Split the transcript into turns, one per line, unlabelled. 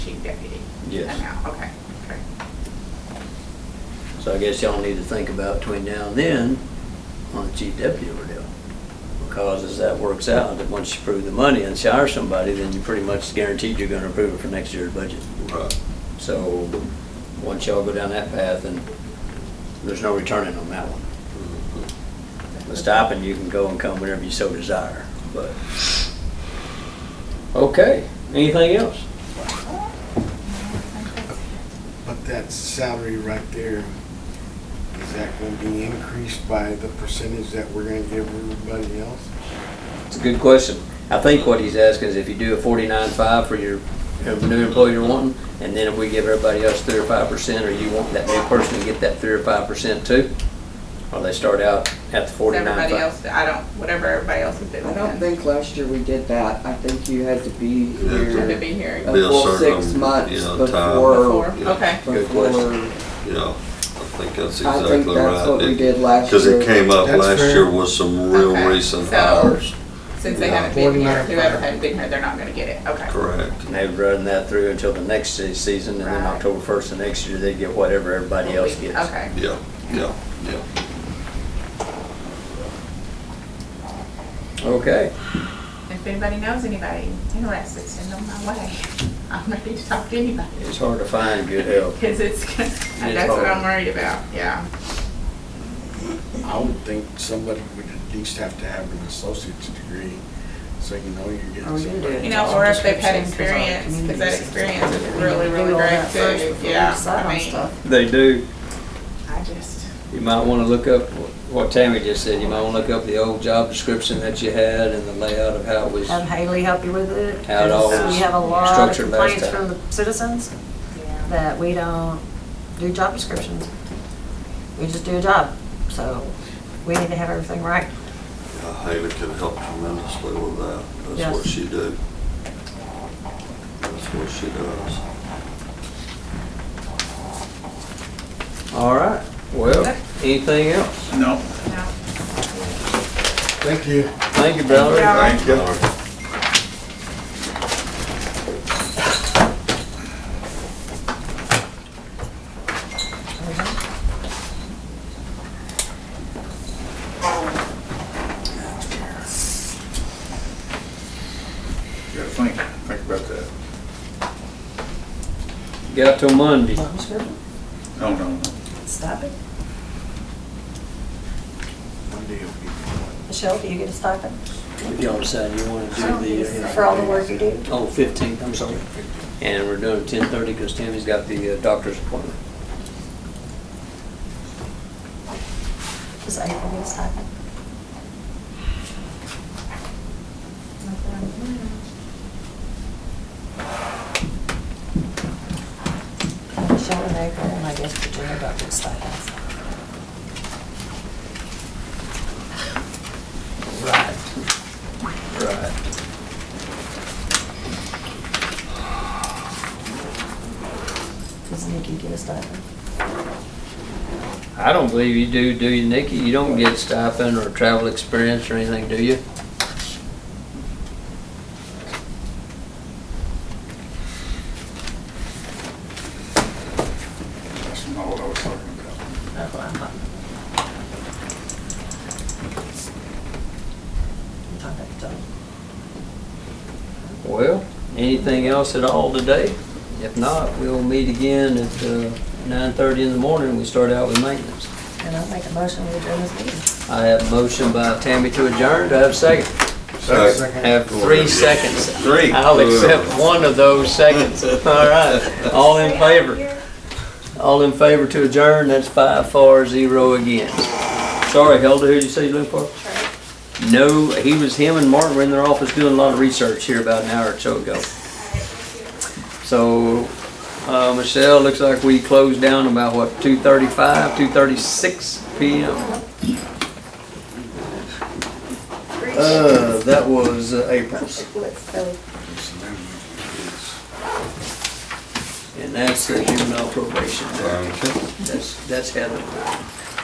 chief deputy?
Yes.
amount? Okay, okay.
So I guess y'all need to think about between now and then on the chief deputy ordeal. Because as that works out, that once you approve the money and hire somebody, then you're pretty much guaranteed you're gonna approve it for next year's budget.
Right.
So, once y'all go down that path, then there's no returning on that one. The stipend, you can go and come whenever you so desire, but. Okay, anything else?
But that salary right there, is that gonna be increased by the percentage that we're gonna give everybody else?
It's a good question. I think what he's asking is if you do a forty-nine five for your your new employee you're wanting, and then if we give everybody else three or five percent, or you want that new person to get that three or five percent too? Or they start out at the
Is
forty-nine
everybody
five?
else, I don't, whatever everybody else is doing.
I don't think last year we did that. I think you had to be
Yeah, it's
Had to
here
be here
a
Uh,
Be a
full
certain,
six
you
months
know, time.
before.
before,
yeah.
okay.
Good
before.
question.
Yeah, I think that's
I think
exactly
that's what we
right.
did last
Because it
year.
came up
That's
last
fair.
year with some real
Okay,
recent
so-
hires.
Since they
Yeah.
haven't been here,
49.
whoever hasn't been here, they're not gonna get it, okay.
Correct.
And they would run that through until the next se- season, and then
Right.
October first of next year, they get whatever everybody else gets.
Okay.
Yeah, yeah, yeah.
Okay,
If anybody knows anybody interested, send them my way. I'm ready to talk to anybody.
it's hard to find good help.
Because it's, that's what I'm worried about, yeah.
I would think somebody would at least have to have an associate's degree, so you know you're
Oh,
getting
you
somebody.
did.
You know, or if they've had experience, because that experience is really, really
Do all
great
that first
too,
before you
yeah.
decide on
I mean,
stuff.
They do.
I just,
You might want to look up what Tammy just said. You might want to look up the old job description that you had and the layout of how it was.
Have Haley help you with it.
How it all
because
was
We have a lot of
structured last
complaints
time.
from the citizens
yeah.
that we don't do job descriptions. We just do a job, so we need to have everything right.
Yeah, Haley can help tremendously with that. That's
Yes.
what she do. That's what she does.
All right. Well, anything else?
No.
Thank you.
Thank you, brother.
Thank you.
Thank you.
gotta think, think about that.
Got till Monday.
No, no, no.
Stop it.
One day it'll be fun.
Michelle, do you get a stipend?
If y'all decide you want to do the, uh,
For all the work you do?
oh, 15th, I'm sorry. And we're doing 10:30 because Tammy's got the uh, doctor's appointment.
Does April get a stipend? Michelle and April, and I guess Virginia got the stipends.
Right. Right.
Does Nikki get a stipend?
I don't believe you do, do you, Nikki? You don't get stipend or travel experience or anything, do you?
That's not what I was talking about.
That's what I'm talking about. I'm talking about
Well, anything else at all today? If not, we'll meet again at uh, nine thirty in the morning. We start out with maintenance.
the- And I'll make a motion to adjourn this meeting.
I have a motion by Tammy to adjourn. Do I have a second?
Second.
I have three seconds.
Three.
I'll accept one of those seconds. All right. All in favor? All in favor to adjourn, that's five, four, zero again. Sorry, Hilda, who'd you say you look for? No, he was, him and Martin were in their office doing a lot of research here about an hour or so ago. So, uh, Michelle, looks like we closed down about what, two thirty-five, two thirty-six PM? Uh, that was uh, April's. And that's the juvenile probation.
Okay.
That's, that's Heather.